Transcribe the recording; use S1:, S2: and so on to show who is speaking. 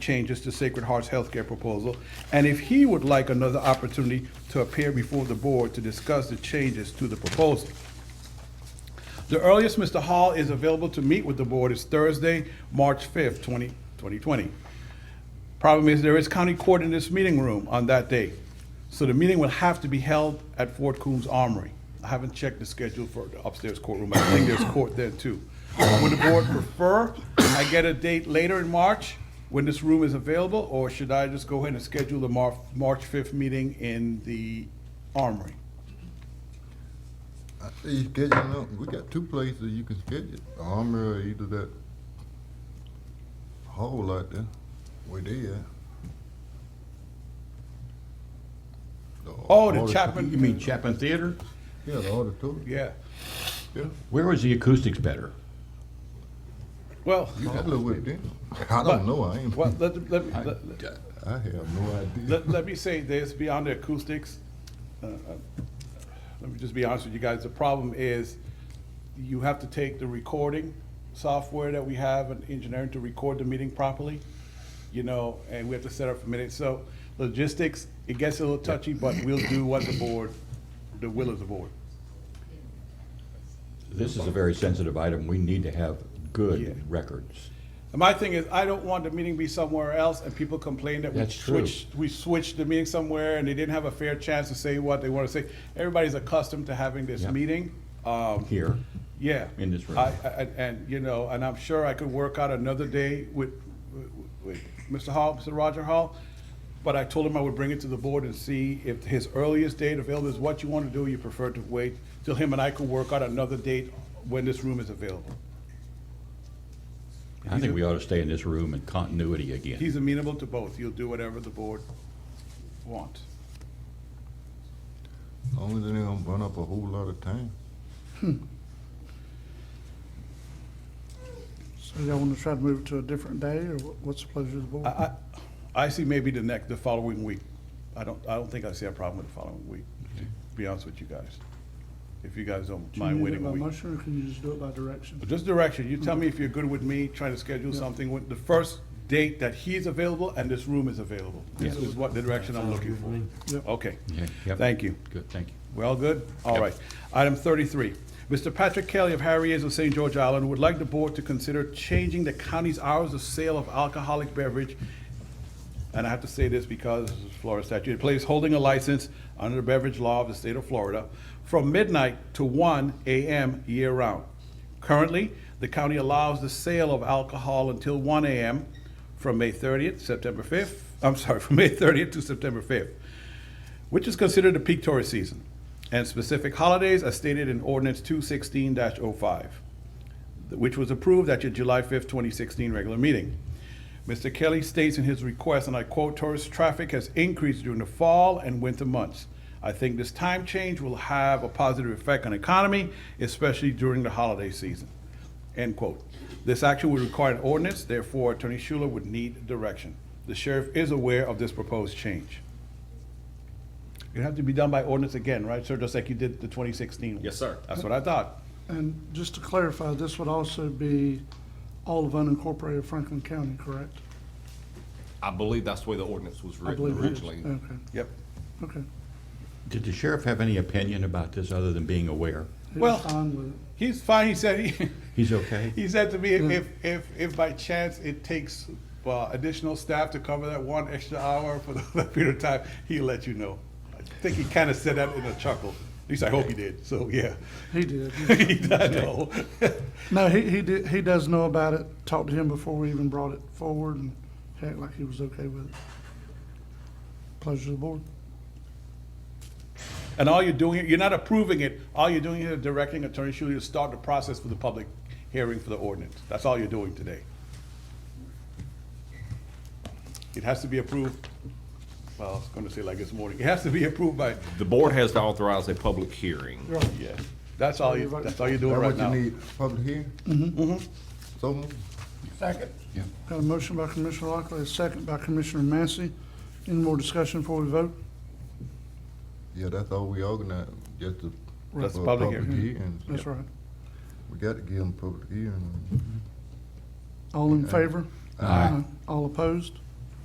S1: changes to Sacred Heart's healthcare proposal, and if he would like another opportunity to appear before the board to discuss the changes to the proposal. The earliest Mr. Hall is available to meet with the board is Thursday, March 5th, 20 2020. Problem is, there is county court in this meeting room on that day, so the meeting will have to be held at Fort Coombs Armory. I haven't checked the schedule for the upstairs courtroom, I think there's court there too. Would the board prefer I get a date later in March when this room is available, or should I just go ahead and schedule the Mar- March 5th meeting in the Armory?
S2: I say you schedule up. We got two places you can schedule. The Armory or either that hole out there where they at. The
S1: Oh, the
S2: auditor-
S1: Chapman,
S3: You mean Chapman Theater?
S2: Yeah, the auditorium.
S1: Yeah,
S2: Yeah,
S3: Where was the acoustics better?
S1: well,
S2: you got to with them. I don't know. I ain't.
S1: well, let, let, me- let,
S2: I have no idea.
S1: let, let me say this, beyond the acoustics, uh, uh, let me just be honest with you guys, the problem is you have to take the recording software that we have in engineering to record the meeting properly, you know, and we have to set up for minutes, so logistics, it gets a little touchy, but we'll do what the board, the will of the board.
S3: This is a very sensitive item. We need to have
S1: Yeah.
S3: good records.
S1: And my thing is, I don't want the meeting to be somewhere else and people complain that we
S3: That's true.
S1: switched, we switched the meeting somewhere and they didn't have a fair chance to say what they want to say. Everybody's accustomed to having this
S3: Yeah.
S1: meeting. Um,
S3: Here,
S1: yeah.
S3: In this room.
S1: I, I, and- and, you know, and I'm sure I could work out another day with, with Mr. Hall, Mr. Roger Hall. But I told him I would bring it to the board and see if his earliest date available is what you want to do, you prefer to wait till him and I could work out another date when this room is available.
S3: I think we ought to stay in this room in continuity again.
S1: He's amenable to both. He'll do whatever the board wants.
S2: Only thing they gonna burn up a whole lot of time.
S4: So y'all want to try to move it to a different day, or what- what's the pleasure of the board?
S1: I, I, I see maybe the next, the following week. I don't, I don't think I see a problem with the following week, to be honest with you guys. If you guys don't
S4: Do you
S1: mind
S4: need it
S1: waiting
S4: by
S1: a week.
S4: motion, or can you just do it by direction?
S1: Just direction. You tell me if you're good with me trying to schedule something with the first date that he's available and this room is available. This is what the direction I'm looking for.
S4: Yep.
S1: Okay.
S3: Yeah, yep.
S1: Thank you.
S3: Good, thank you.
S1: We all good? All
S3: Yep.
S1: right. Item thirty-three. Mr. Patrick Kelly of Harriers of St. George Island would like the board to consider changing the county's hours of sale of alcoholic beverage. And I have to say this because it's Florida statute, it plays holding a license under the beverage law of the state of Florida from midnight to one AM year-round. Currently, the county allows the sale of alcohol until one AM from May thirtieth, September fifth, I'm sorry, from May thirtieth to September fifth which is considered the peak tourist season, and specific holidays as stated in ordinance two sixteen 5 which was approved at your July fifth, twenty sixteen regular meeting. Mr. Kelly states in his request, and I quote, "Tourist traffic has increased during the fall and winter months. I think this time change will have a positive effect on economy, especially during the holiday season." End quote. This action would require an ordinance, therefore Attorney Schuler would need direction. The sheriff is aware of this proposed change. It'd have to be done by ordinance again, right, sir, just like you did the 2016?
S5: Yes, sir.
S1: That's what I thought.
S4: And just to clarify, this would also be all of unincorporated Franklin County, correct?
S5: I believe that's the way the ordinance was
S4: I
S5: written
S4: believe it is.
S5: originally.
S4: Okay,
S1: Yep.
S4: okay.
S3: Did the sheriff have any opinion about this other than being aware?
S4: He was
S1: Well-
S4: fine with it.
S1: He's fine, he said, he,
S3: He's okay?
S1: he said to me, if, if- if, if by chance it takes uh, additional staff to cover that one extra hour for that period of time, he'll let you know. I think he kind of said that in a chuckle, at least I hope he did, so, yeah.
S4: He did.
S1: He does know.
S4: No, he, he did, he does know about it, talked to him before we even brought it forward, and he acted like he was okay with it. Pleasure of the board.
S1: And all you're doing, you're not approving it, all you're doing is directing Attorney Schuler to start the process for the public hearing for the ordinance. That's all you're doing today. It has to be approved, well, I was gonna say like this morning, it has to be approved by,
S5: The board has to authorize a public hearing.
S4: Right.
S1: yeah, that's all you, that's all you're doing right
S2: That's what you
S1: now.
S2: need, public hearing? Mm-hmm. So moved.
S4: Got a motion by Commissioner Lockley, a second by Commissioner Massey. Any more discussion before we vote?
S2: Yeah, that's all we organize, just the.
S1: That's public hearing.
S4: That's right.
S2: We got to give them public hearing.
S4: All in favor?
S3: Aye.
S4: All opposed?